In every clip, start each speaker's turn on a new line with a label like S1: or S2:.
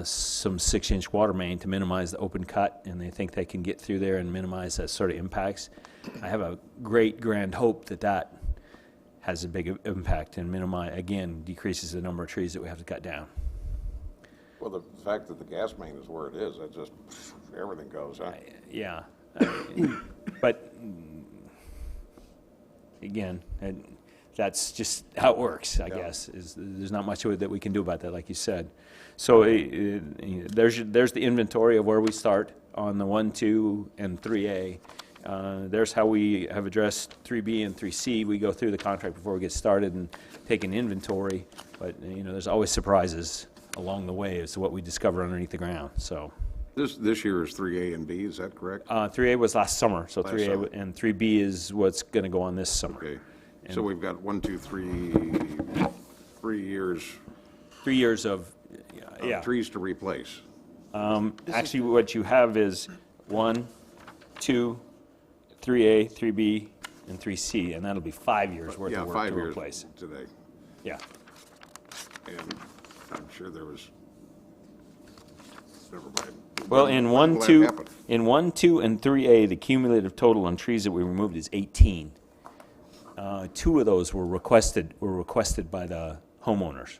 S1: uh, some six-inch water main to minimize the open cut, and they think they can get through there and minimize that sort of impacts. I have a great grand hope that that has a big i- impact and minimize, again, decreases the number of trees that we have to cut down.
S2: Well, the fact that the gas main is where it is, that just, everything goes, huh?
S1: Yeah. I mean, But, mm, again, and that's just how it works, I
S2: Yeah.
S1: guess, is, there's not much that we can do about that, like you said. So eh, eh, eh, there's, your- there's the inventory of where we start on the one, two, and three A. Uh, There's how we have addressed three B and three C. We go through the contract before we get started and take an inventory, but, eh, you know, there's always surprises along the way as to what we discover underneath the ground, so.
S2: This, this year is three A and B, is that correct?
S1: Uh, 3A was last summer, so
S2: Last
S1: 3A
S2: summer.
S1: w- and 3B is what's going to go on this summer.
S2: Okay, so we've got one, two, three, three years,
S1: Three years of, yeah.
S2: trees to replace.
S1: Actually, what you have is 1, 2, 3A, 3B, and 3C, and that'll be five years worth
S2: Yeah,
S1: of work
S2: five
S1: to
S2: years
S1: replace.
S2: today.
S1: Yeah,
S2: And I'm sure there was, never mind.
S1: Well, in 1,
S2: glad it
S1: 2,
S2: happened.
S1: in 1, 2, and 3A, the cumulative total on trees that we removed is 18. Uh, Two of those were requested, were requested by the homeowners.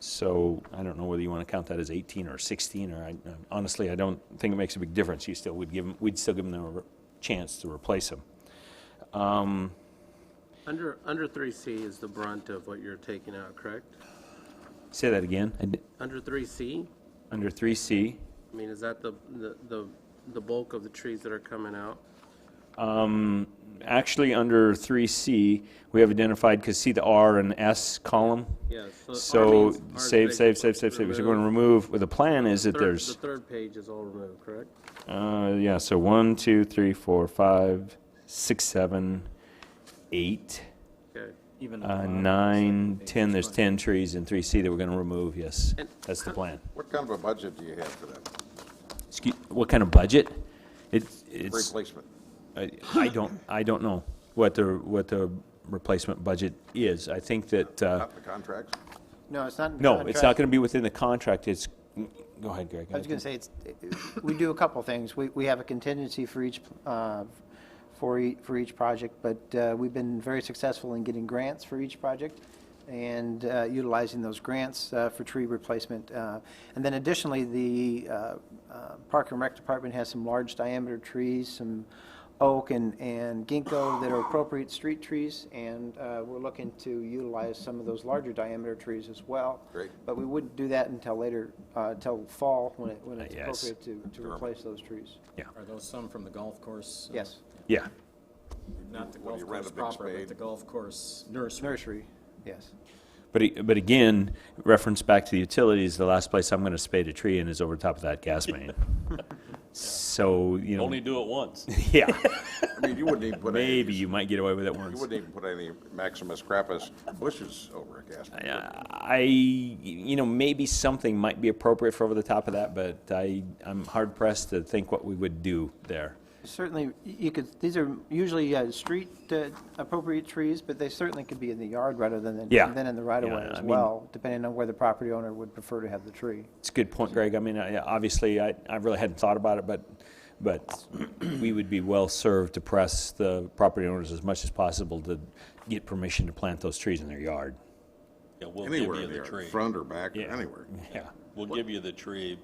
S1: So I don't know whether you want to count that as 18 or 16, or I, honestly, I don't think it makes a big difference. You still would give them, we'd still give them the re- chance to replace them.
S3: Under, under 3C is the brunt of what you're taking out, correct?
S1: Say that again, I d-
S3: Under 3C,
S1: under 3C.
S3: I mean, is that the, the- the, the bulk of the trees that are coming out?
S1: Actually, under 3C, we have identified, because see the R and S column?
S3: Yeah, so R
S1: So
S3: means R is
S1: save,
S3: big,
S1: save, save, save, save, so we're going to remove, well, the plan is that
S3: Third-
S1: there's.
S3: The third page is all removed, correct?
S1: Uh, yeah, so one, two, three, four, five, six, seven, eight,
S3: Okay.
S4: Even
S1: uh, nine, ten. There's ten trees in three C that we're gonna remove, yes.
S3: And-
S1: That's the plan.
S2: What kind of a budget do you have for that,
S1: Excuse, what kind of budget? It, it's,
S2: replacement?
S1: I I don't, I don't know what the, what the replacement budget is. I think that, uh,
S2: Not the contracts?
S4: No, it's not. in
S1: no, it's not
S4: contract.
S1: gonna be within the contract, it's, go ahead, Greg.
S4: I was going to say, it's, we do a couple things. We, we have a contingency for each, uh, for ea- for each project, but, uh, we've been very successful in getting grants for each project and, uh, utilizing those grants, uh, for tree replacement. Uh, and then additionally, the, uh, uh, Park and Rec Department has some large diameter trees, some oak and, and ginkgo that are appropriate street trees, and, uh, we're looking to utilize some of those larger diameter trees as well.
S2: Great.
S4: But we wouldn't do that until later, uh, until fall, when it, when it's
S1: Uh, yes.
S4: appropriate to, to replace those trees.
S5: Are those some from the golf course? uh,
S4: Yes,
S1: Yeah,
S5: Not the golf
S2: you rent
S5: course
S2: a big
S5: proper,
S2: spade?
S5: but the golf course nursery.
S4: nursery, yes.
S1: but, a- but again, reference back to the utilities, the last place I'm gonna spade a tree in is over top of that gas main. So, you know.
S6: Only do it once.
S1: Yeah,
S2: I mean, you wouldn't even put any,
S1: maybe
S2: you
S1: you might get away with it once.
S2: wouldn't even put any Maximus crappus bushes over a gas main.
S1: Uh, I, you know, maybe something might be appropriate for over the top of that, but I, I'm hard pressed to think what we would do there.
S4: Certainly, y- you could, these are usually, uh, street, uh, appropriate trees, but they certainly could be in the yard rather than,
S1: Yeah.
S4: than in the right of way
S1: Yeah, I
S4: as
S1: mean-
S4: well, depending on where the property owner would prefer to have the tree.
S1: It's a good point, Greg. I mean, I, obviously, I, I really hadn't thought about it, but, but we would be well served to press the property owners as much as possible to get permission to plant those trees in their yard.
S6: Yeah, we'll give
S2: Anywhere
S6: you
S2: in
S6: the
S2: there,
S6: tree.
S2: front or back, or
S1: Yeah.
S2: anywhere.
S1: Yeah.
S6: We'll give you the tree.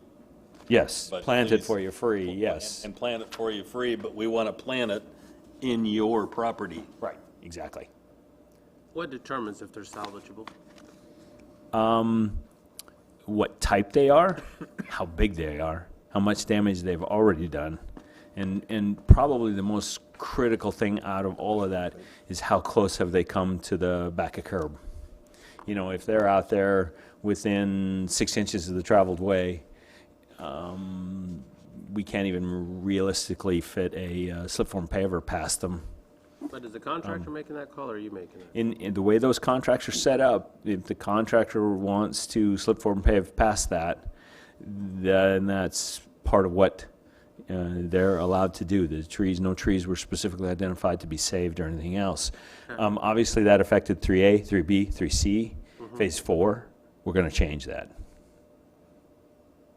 S1: Yes,
S6: but
S1: plant it
S6: please-
S1: for you free, yes.
S6: And plant it for you free, but we want to plant it in your property.
S1: Right. Exactly.
S3: What determines if they're salvageable?
S1: what type they are, how big they are, how much damage they've already done. And, and probably the most critical thing out of all of that is how close have they come to the back of curb. You know, if they're out there within six inches of the traveled way, um, we can't even realistically fit a uh, slip form paver past them.
S3: But is the
S1: Um,
S3: contractor making that call, or are you making it?
S1: In, in the way those contracts are set up, if the contractor wants to slip forward and pave past that, then that's part of what uh, they're allowed to do. The trees, no trees were specifically identified to be saved or anything else. Um, Obviously, that affected 3A, 3B, 3C, Phase 4. We're going to change that.